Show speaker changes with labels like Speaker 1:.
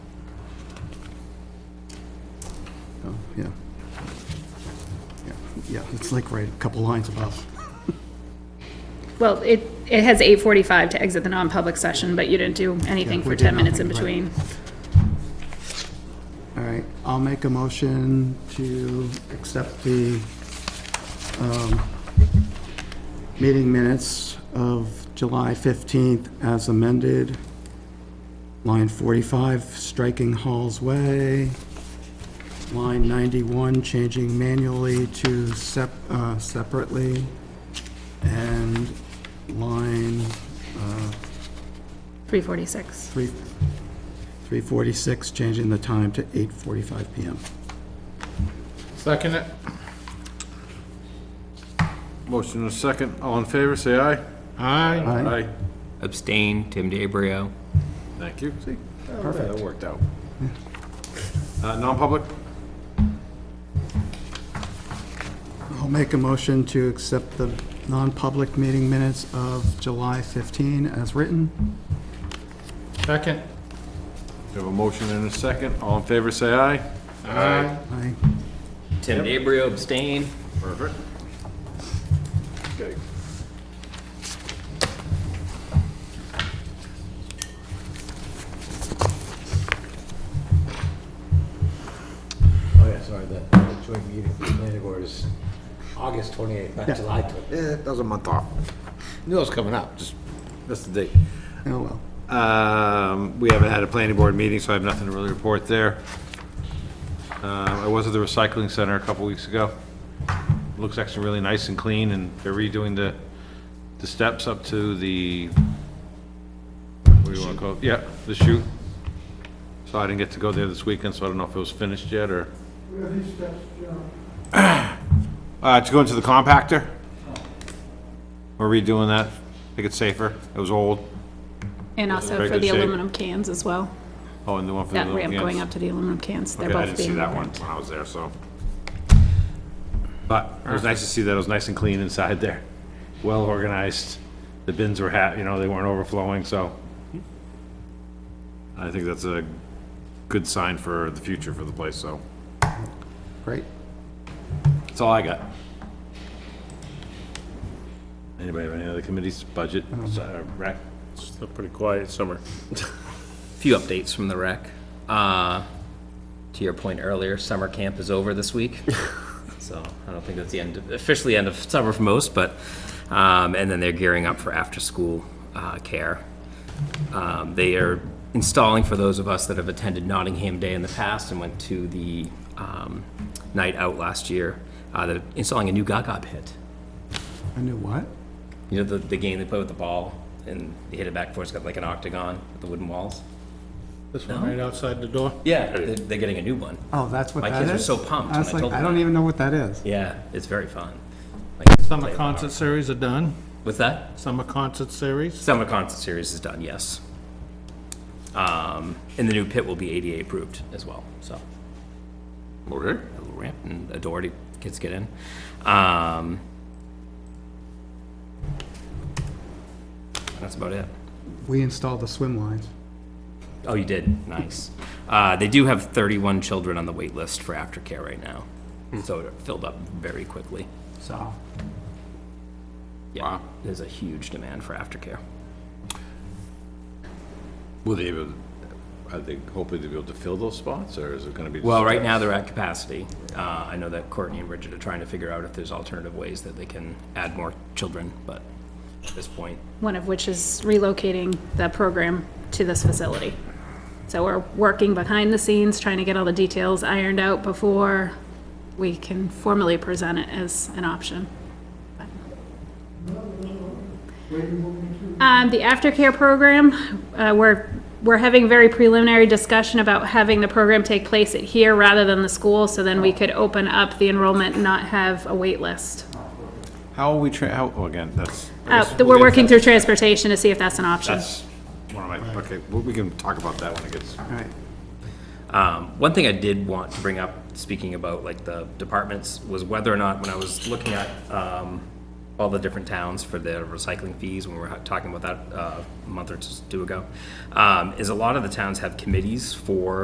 Speaker 1: yeah. Yeah, Yeah, it's like right, a couple lines above.
Speaker 2: Well, it, it has 8:45 to exit the non-public session, but you didn't do anything
Speaker 1: Yeah, we
Speaker 2: for
Speaker 1: did
Speaker 2: 10 minutes in
Speaker 1: nothing, right.
Speaker 2: between.
Speaker 1: All right, I'll make a motion to accept the um, meeting minutes of July 15th as amended. Line 45, striking Hall's Way. Line 91, changing manually to sep- uh, separately. And line uh,
Speaker 2: 3:46.
Speaker 1: three- 346, changing the time to 8:45 PM.
Speaker 3: Second it. Motion and a second. All in favor, say aye.
Speaker 1: Aye.
Speaker 3: Aye. Aye.
Speaker 4: Abstain, Tim DeBrio.
Speaker 3: Thank you. See? Perfect. That worked out. Uh, non-public?
Speaker 1: I'll make a motion to accept the non-public meeting minutes of July 15 as written.
Speaker 5: Second.
Speaker 3: We have a motion and a second. All in favor, say aye. Aye.
Speaker 1: Aye.
Speaker 4: Tim DeBrio, abstain.
Speaker 3: Perfect. Okay.
Speaker 5: Oh, yeah, sorry, the the joint meeting for the planning board is August 28th, not July 28th. Eh, that was a month off. Knew it was coming up, just missed the date.
Speaker 1: Oh, well.
Speaker 3: Um, We haven't had a planning board meeting, so I have nothing to really report there. Uh, I was at the recycling center a couple weeks ago. Looks actually really nice and clean, and they're redoing the, the steps up to the, what do you want to call it? Yeah, the chute. So I didn't get to go there this weekend, so I don't know if it was finished yet, or... Uh, to go into the compactor. We're redoing that, make it safer. It was old.
Speaker 2: And also
Speaker 3: Very
Speaker 2: for
Speaker 3: good
Speaker 2: the
Speaker 3: shape.
Speaker 2: aluminum cans as well.
Speaker 3: Oh, and the one for the...
Speaker 2: That
Speaker 3: little
Speaker 2: ramp
Speaker 3: kids.
Speaker 2: going up to the aluminum cans, they're
Speaker 3: Okay, I
Speaker 2: both
Speaker 3: didn't see
Speaker 2: being
Speaker 3: that one
Speaker 2: repaired.
Speaker 3: when I was there, so. But it was nice to see that it was nice and clean inside there. Well organized. The bins were ha, you know, they weren't overflowing, so. I think that's a good sign for the future for the place, so.
Speaker 1: Great.
Speaker 3: That's all I got. Anybody have any other committees, budget, uh, rec?
Speaker 6: It's a pretty quiet summer.
Speaker 4: Few updates from the rec. Uh, to your point earlier, summer camp is over this week. so I don't think that's the end, officially end of summer for most, but, um, and then they're gearing up for after-school, uh, care. Um, they are installing, for those of us that have attended Nottingham Day in the past and went to the, um, night out last year, uh, they're installing a new Gaga pit.
Speaker 1: I knew what?
Speaker 4: You know the, the game they play with the ball and you hit it back and forth, it's got like an octagon with the wooden walls?
Speaker 6: This one right outside the door?
Speaker 4: Yeah, they're, they're getting a new one.
Speaker 1: Oh, that's what
Speaker 4: My
Speaker 1: that is?
Speaker 4: kids are so pumped
Speaker 1: I was like,
Speaker 4: when I told
Speaker 1: I
Speaker 4: them
Speaker 1: don't
Speaker 4: that.
Speaker 1: even know what that is.
Speaker 4: Yeah, it's very fun.
Speaker 6: Summer concert series are done.
Speaker 4: What's that?
Speaker 6: Summer concert series.
Speaker 4: Summer concert series is done, yes. Um, and the new pit will be ADA approved as well, so.
Speaker 3: Okay.
Speaker 4: A little ramp and a door to kids get in. Um, that's about it.
Speaker 1: We installed the swim lines.
Speaker 4: Oh, you did? Nice. Uh, they do have 31 children on the wait list for aftercare right now. So it filled up very quickly.
Speaker 1: So,
Speaker 4: Yeah, There's a huge demand for aftercare.
Speaker 3: Will they, be- are they hoping to be able to fill those spots, or is it gonna be? just-
Speaker 4: Well, right now they're at capacity. Uh, I know that Courtney and Bridget are trying to figure out if there's alternative ways that they can add more children, but at this point,
Speaker 2: One of which is relocating the program to this facility. So we're working behind the scenes, trying to get all the details ironed out before we can formally present it as an option. Um, the aftercare program, uh, we're, we're having very preliminary discussion about having the program take place at here rather than the school, so then we could open up the enrollment and not have a wait list.
Speaker 3: How are we, tra- how, oh, again, that's. I
Speaker 2: Uh,
Speaker 3: guess
Speaker 2: we're
Speaker 3: we'll get
Speaker 2: working
Speaker 3: that.
Speaker 2: through transportation to see if that's an option.
Speaker 3: That's one of my, okay, well, we can talk about that when it gets.
Speaker 1: all right.
Speaker 4: Um, One thing I did want to bring up, speaking about like the departments, was whether or not, when I was looking at um, all the different towns for their recycling fees, when we were talking about that uh, a month or two ago, um, is a lot of the towns have committees for